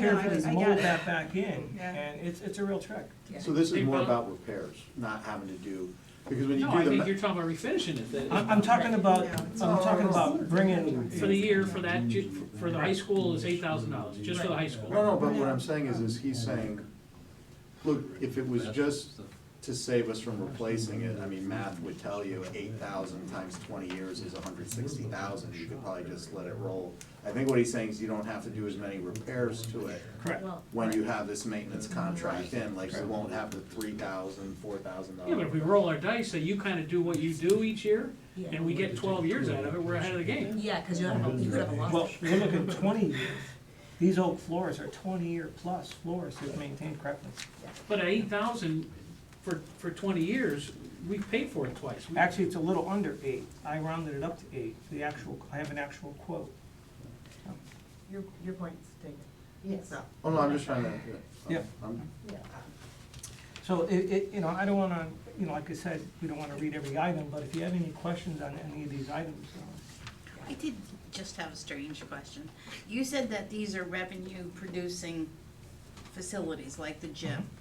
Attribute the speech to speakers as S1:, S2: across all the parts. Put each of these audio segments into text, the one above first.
S1: know, I-
S2: carefully
S1: I get
S2: mold
S1: it.
S2: that back in,
S1: Yeah.
S2: and it's, it's a real trick.
S1: Yeah.
S3: So this is more
S4: They-
S3: about repairs, not having to do, because when you
S4: No,
S3: do
S4: I
S3: the.
S4: think
S3: ma-
S4: you're talking about refinishing it. that-
S2: I'm, I'm talking about,
S1: Yeah,
S2: I'm
S1: it's all
S2: talking about
S1: around.
S2: bringing.
S4: For the year, for that, ju- for the high school is eight thousand dollars, just for the high school.
S3: No, no, but what I'm saying is, is he's saying, look, if it was just to save us from replacing it, I mean, math would tell you eight thousand times twenty years is hundred sixty thousand, you could probably just let it roll. I think what he's saying is you don't have to do as many repairs to it
S2: Correct.
S3: when you have this maintenance contract in, like you won't have the three thousand, four thousand
S4: Yeah, but if
S3: dollars.
S4: we roll our dice, that you kinda do what you do each year,
S5: Yeah,
S4: and we get twelve years out of it, we're ahead of the game.
S5: yeah, cause you have, a- you could have a lot.
S2: Well, we're looking twenty years. These oak floors are twenty-year plus floors that maintain correctness.
S4: But at eight thousand for, for twenty years, we paid for it twice. We-
S2: Actually, it's a little under eight. I rounded it up to eight, the actual, I have an actual quote.
S1: Your, your point's taken.
S6: Yes.
S1: So,
S3: Oh, no, I'm just trying to.
S2: Yeah.
S3: I'm-
S2: So it, it, you know, I don't wanna, you know, like I said, we don't wanna read every item, but if you have any questions on any of these items, uh,
S6: I did just have a strange question. You said that these are revenue-producing facilities, like the gym.
S2: Mm-hmm.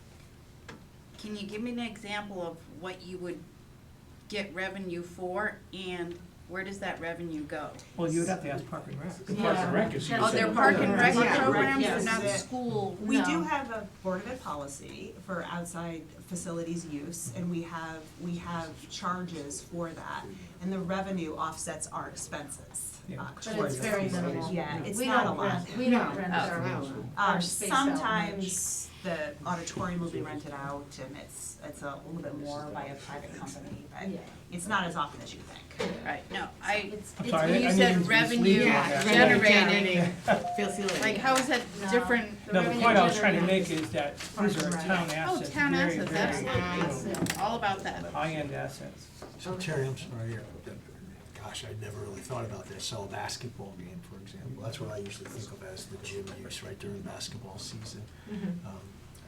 S6: Can you give me an example of what you would get revenue for, and where does that revenue go?
S2: well, you would have to ask Park and Rec.
S4: The Parks and Rec is.
S6: Oh, they're park and rec
S1: Yeah.
S6: programs, they're
S1: Yes.
S6: not
S1: Yeah.
S6: school?
S7: We do
S6: No.
S7: have a Board of Ed policy for outside facilities use, and we have, we have charges for that. And the revenue offsets our expenses.
S2: Yeah.
S7: uh,
S6: But
S7: towards
S6: it's very
S7: those.
S6: minimal.
S7: Yeah, it's
S6: We
S7: not a
S6: don't
S7: lot.
S6: rent- We don't rent
S1: No.
S6: our,
S7: Um,
S6: our space out much.
S7: sometimes the auditorium will be rented out, and it's, it's a little bit more by a private company,
S5: uh,
S7: but
S6: Yeah.
S7: it's not as often as you think.
S6: Right, no, I,
S1: It's,
S2: I'm
S6: it's,
S2: sorry, I-
S6: when
S2: I
S6: you
S2: need to
S6: said
S2: be
S6: revenue
S2: sleeping.
S1: Yeah,
S6: generating,
S1: feel silly.
S6: like, how is that
S1: No.
S6: different?
S2: No, the point I was trying to make is that these are
S1: Parks and
S2: town
S6: Oh,
S2: assets,
S6: town
S2: very,
S6: assets,
S2: very, you
S6: absolutely,
S2: know,
S6: all about that.
S2: high-end assets.
S8: So Terry, I'm sorry, yeah, but, gosh, I'd never really thought about this, so a basketball game, for example, that's what I usually think of as the gym use, right, during basketball season. Um,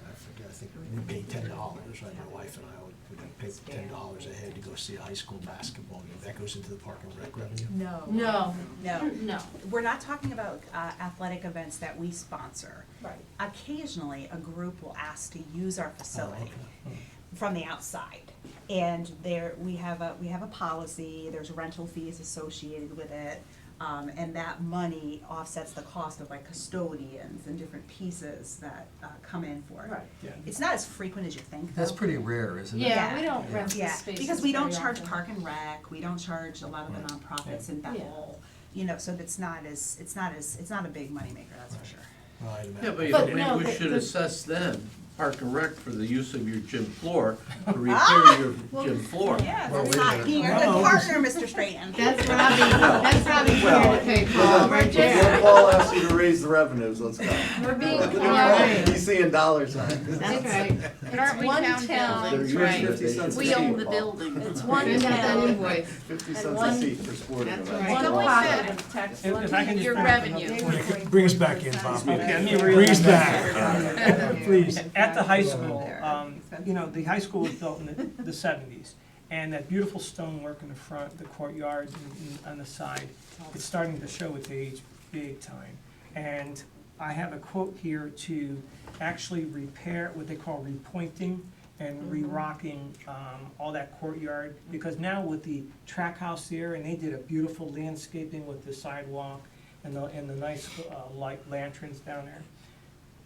S8: I forget, I think we paid ten dollars, right, my wife and I would, would pay ten dollars a head to go see a high school basketball game, that goes into the park and rec revenue?
S7: No.
S5: No,
S7: No.
S5: no.
S7: We're not talking about uh, athletic events that we sponsor.
S1: Right.
S7: occasionally a group will ask to use our facility
S8: Oh, okay.
S7: from the outside. And there, we have a, we have a policy, there's rental fees associated with it. Um, and that money offsets the cost of like custodians and different pieces that, uh, come in for it.
S1: Right.
S8: Yeah.
S7: It's not as frequent as you think though.
S9: That's pretty rare, isn't it?
S7: Yeah.
S5: Yeah, we don't rent the
S7: Yeah,
S5: spaces
S7: because we don't
S5: very
S7: charge
S5: often.
S7: Park and Rec, we don't charge a lot of the nonprofits in that
S5: Yeah.
S7: whole, you know, so it's not as, it's not as, it's not a big moneymaker, that's for sure.
S8: Well, I'd
S10: Yeah,
S8: imagine.
S10: but
S5: But
S10: you-
S5: no,
S10: we
S5: the-
S10: should
S5: the-
S10: assess them, Park and Rec, for the use of your gym floor, to repair your gym floor.
S7: Yeah,
S8: Well,
S7: that's
S8: wait a
S7: not
S8: minute.
S7: being a good partner, Mr. Strayton.
S6: That's what I'm, that's what I'm
S3: Well,
S6: okay,
S3: Well, then, Paul asks you to raise the revenues, let's go.
S5: We're being
S3: You see in dollar signs.
S6: That's right. But aren't we
S5: One
S6: town
S5: town.
S6: buildings,
S3: They're usually
S6: right?
S3: fifty cents a
S6: We own the
S3: seat, Paul.
S6: building.
S5: It's one town,
S6: invoice.
S3: Fifty
S5: And
S3: cents a
S5: one-
S3: seat for sporting events.
S5: one
S6: Don't
S5: pocket
S6: say
S5: of
S2: If-
S5: tax
S2: if I can
S5: money.
S2: just
S6: Your
S2: bring up another
S6: revenue.
S2: point.
S8: Bring us back in, Bob,
S2: Okay, let me
S8: bring us
S2: read-
S8: back, please.
S2: At the high school, um, you know, the high school was built in the, the seventies, and that beautiful stonework in the front, the courtyard and, and on the side, it's starting to show its age big time. And I have a quote here to actually repair what they call repointing
S1: Mm-hmm.
S2: and re-rocking, um, all that courtyard, because now with the track house there, and they did a beautiful landscaping with the sidewalk and the, and the nice, uh, light lanterns down there.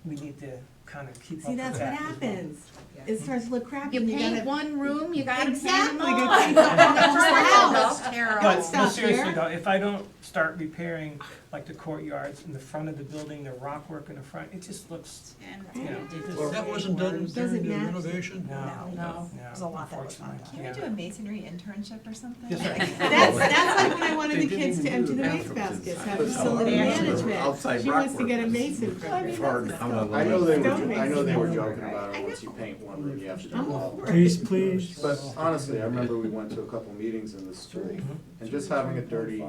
S2: We need to kind of keep up
S1: See,
S2: with
S1: that's what
S2: that as well.
S1: happens. It starts to look crappy.
S6: You
S1: and
S6: paint
S1: gotta-
S6: one room, you gotta paint them
S1: Exactly.
S6: all.
S1: Good
S6: That's
S1: thing. That's right.
S6: That's terrible.
S2: But, but
S1: stuff
S2: seriously
S1: here.
S2: though, if I don't start repairing like the courtyards in the front of the building, the rock work in the front, it just looks, you know, it just.
S8: That wasn't done
S1: Doesn't
S8: during the
S1: matter.
S8: renovation?
S2: No,
S1: Oh, No.
S2: no,
S7: There's a lot that was not done.
S2: unfortunately,
S7: Can
S1: Can we
S2: yeah.
S1: do a masonry internship or something?
S2: Yes, sir.
S1: That's, that's like when I wanted
S10: They
S1: the
S10: didn't
S1: kids to
S10: even do
S1: empty
S10: the
S1: the waste
S10: bathrooms
S1: baskets,
S10: inside.
S1: have
S10: But
S1: facility
S7: outside-
S1: management.
S10: outside
S1: She wants to
S10: rock
S1: get a
S10: work
S1: mason from
S10: It's
S1: her.
S10: hard to come up with
S3: I know they were,
S1: Don't
S3: jo- I know they were
S1: make
S3: joking
S1: sense.
S3: about it, once you paint one room, you have to do
S1: I'm
S3: all.
S1: all for it.
S8: Please, please.
S3: But honestly, I remember we went to a couple meetings in the school, and just having a dirty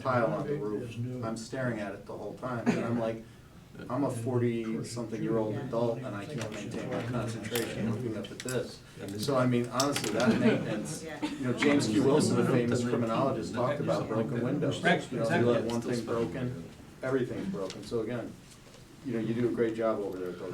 S3: tile on the roof, I'm staring at it the whole time, and I'm like, I'm a forty-something-year-old adult, and I can't maintain my concentration looking up at this. So I mean, honestly, that maintenance,
S7: Yeah.
S3: you know, James Q. Wilson, the famous criminologist, talked about broken windows.
S2: Right,
S3: You know, you
S2: exactly.
S3: let one thing broken, everything's broken, so again, you know, you do a great job over there at those